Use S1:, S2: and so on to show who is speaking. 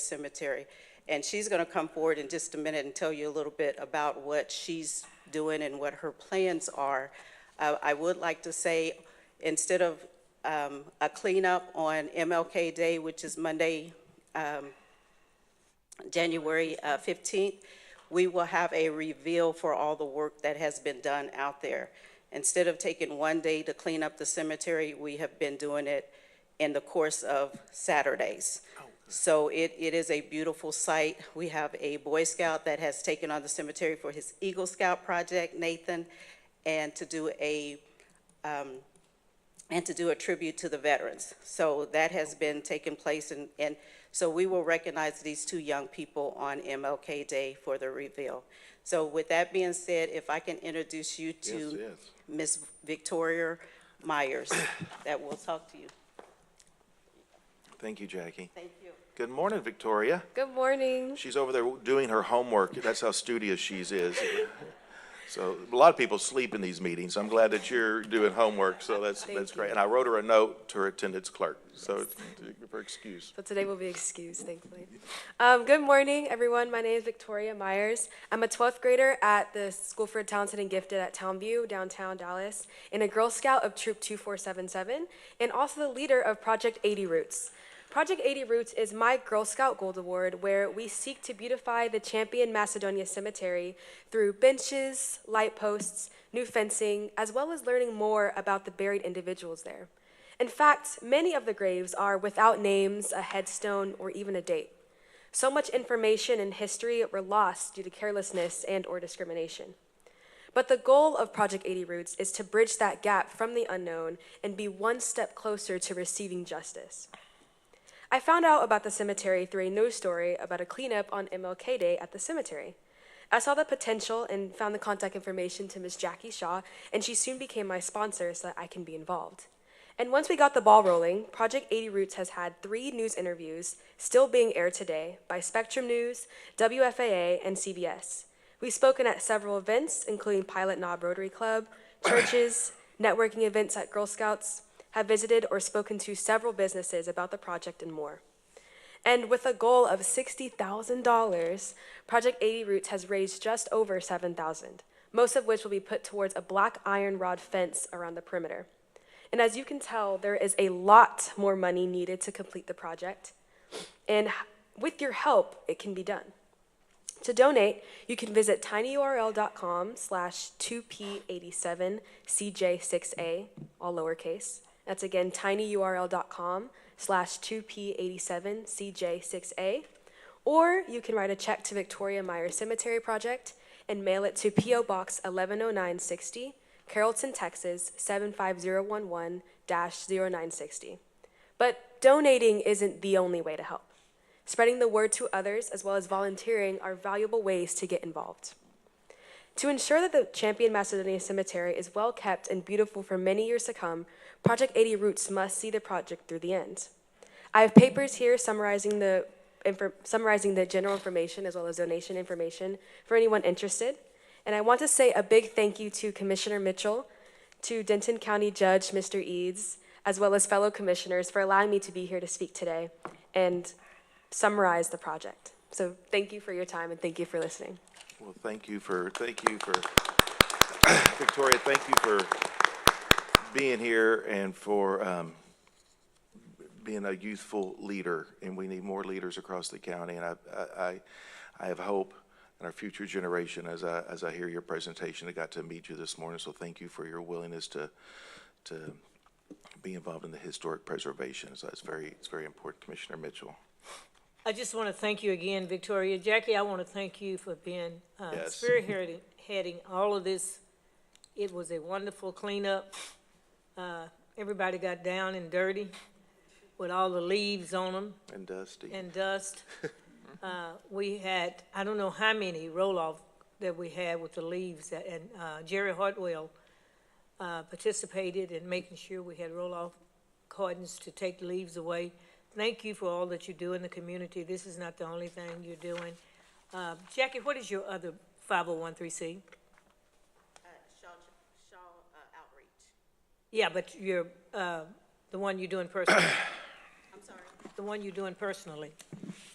S1: Cemetery. And she's going to come forward in just a minute and tell you a little bit about what she's doing and what her plans are. Uh, I would like to say, instead of um, a cleanup on MLK Day, which is Monday, January uh, 15th, we will have a reveal for all the work that has been done out there. Instead of taking one day to clean up the cemetery, we have been doing it in the course of Saturdays. So it, it is a beautiful site. We have a Boy Scout that has taken on the cemetery for his Eagle Scout project, Nathan, and to do a and to do a tribute to the veterans. So that has been taking place, and, and so we will recognize these two young people on MLK Day for the reveal. So with that being said, if I can introduce you
S2: Yes,
S1: to
S2: yes.
S1: Ms. Victoria Myers, that will talk to you.
S2: Thank you, Jackie.
S1: Thank you.
S2: Good morning, Victoria.
S3: Good morning.
S2: She's over there doing her homework. That's how studious she's is. So a lot of people sleep in these meetings. I'm glad that you're doing homework, so that's,
S3: Thank
S2: that's
S3: you.
S2: great. And I wrote her a note to her attendance clerk, so for excuse.
S3: So today will be excused, thankfully. Um, good morning, everyone. My name is Victoria Myers. I'm a 12th grader at the School for Talented and Gifted at Townview, downtown Dallas, and a Girl Scout of Troop 2477, and also the leader of Project 80 Roots. Project 80 Roots is my Girl Scout Gold Award, where we seek to beautify the Champion Macedonia Cemetery through benches, light posts, new fencing, as well as learning more about the buried individuals there. In fact, many of the graves are without names, a headstone, or even a date. So much information and history were lost due to carelessness and or discrimination. But the goal of Project 80 Roots is to bridge that gap from the unknown and be one step closer to receiving justice. I found out about the cemetery through a news story about a cleanup on MLK Day at the cemetery. I saw the potential and found the contact information to Miss Jackie Shaw, and she soon became my sponsor so that I can be involved. And once we got the ball rolling, Project 80 Roots has had three news interviews still being aired today by Spectrum News, WFAA, and CBS. We've spoken at several events, including Pilot Knob Rotary Club, churches, networking events at Girl Scouts, have visited or spoken to several businesses about the project and more. And with a goal of $60,000, Project 80 Roots has raised just over 7,000, most of which will be put towards a black iron rod fence around the perimeter. And as you can tell, there is a lot more money needed to complete the project. And h- with your help, it can be done. To donate, you can visit tinyurl.com slash 2p87cj6a, all lowercase. That's again tinyurl.com slash 2p87cj6a. Or you can write a check to Victoria Meyer Cemetery Project and mail it to P.O. Box 110960, Carrollton, Texas 75011 0960. But donating isn't the only way to help. Spreading the word to others as well as volunteering are valuable ways to get involved. To ensure that the Champion Macedonia Cemetery is well kept and beautiful for many years to come, Project 80 Roots must see the project through the end. I have papers here summarizing the infor- summarizing the general information as well as donation information for anyone interested. And I want to say a big thank you to Commissioner Mitchell, to Denton County Judge Mr. Eads, as well as fellow commissioners for allowing me to be here to speak today and summarize the project. So thank you for your time and thank you for listening.
S2: Well, thank you for, thank you for, Victoria, thank you for being here and for um, being a youthful leader. And we need more leaders across the county. And I, I- I, I have hope in our future generation as I, as I hear your presentation. I got to meet you this morning, so thank you for your willingness to, to be involved in the historic preservation. So it's very, it's very important, Commissioner Mitchell.
S4: I just want to thank you again, Victoria. Jackie, I want to thank you for being, uh,
S2: Yes.
S4: spearheading all of this. It was a wonderful cleanup. Uh, Everybody got down and dirty with all the leaves on them
S2: And uh, Dusty.
S4: and dust. Uh, We had, I don't know how many roll-off that we had with the leaves, that- and uh, Jerry Hartwell uh, participated in making sure we had roll-off cartons to take the leaves away. Thank you for all that you do in the community. This is not the only thing you're doing. Uh, Jackie, what is your other 501c?
S1: Shaw, Shaw uh, Outreach.
S4: Yeah, but you're, uh, the one you're doing personally,
S1: I'm sorry.
S4: the one you're doing personally.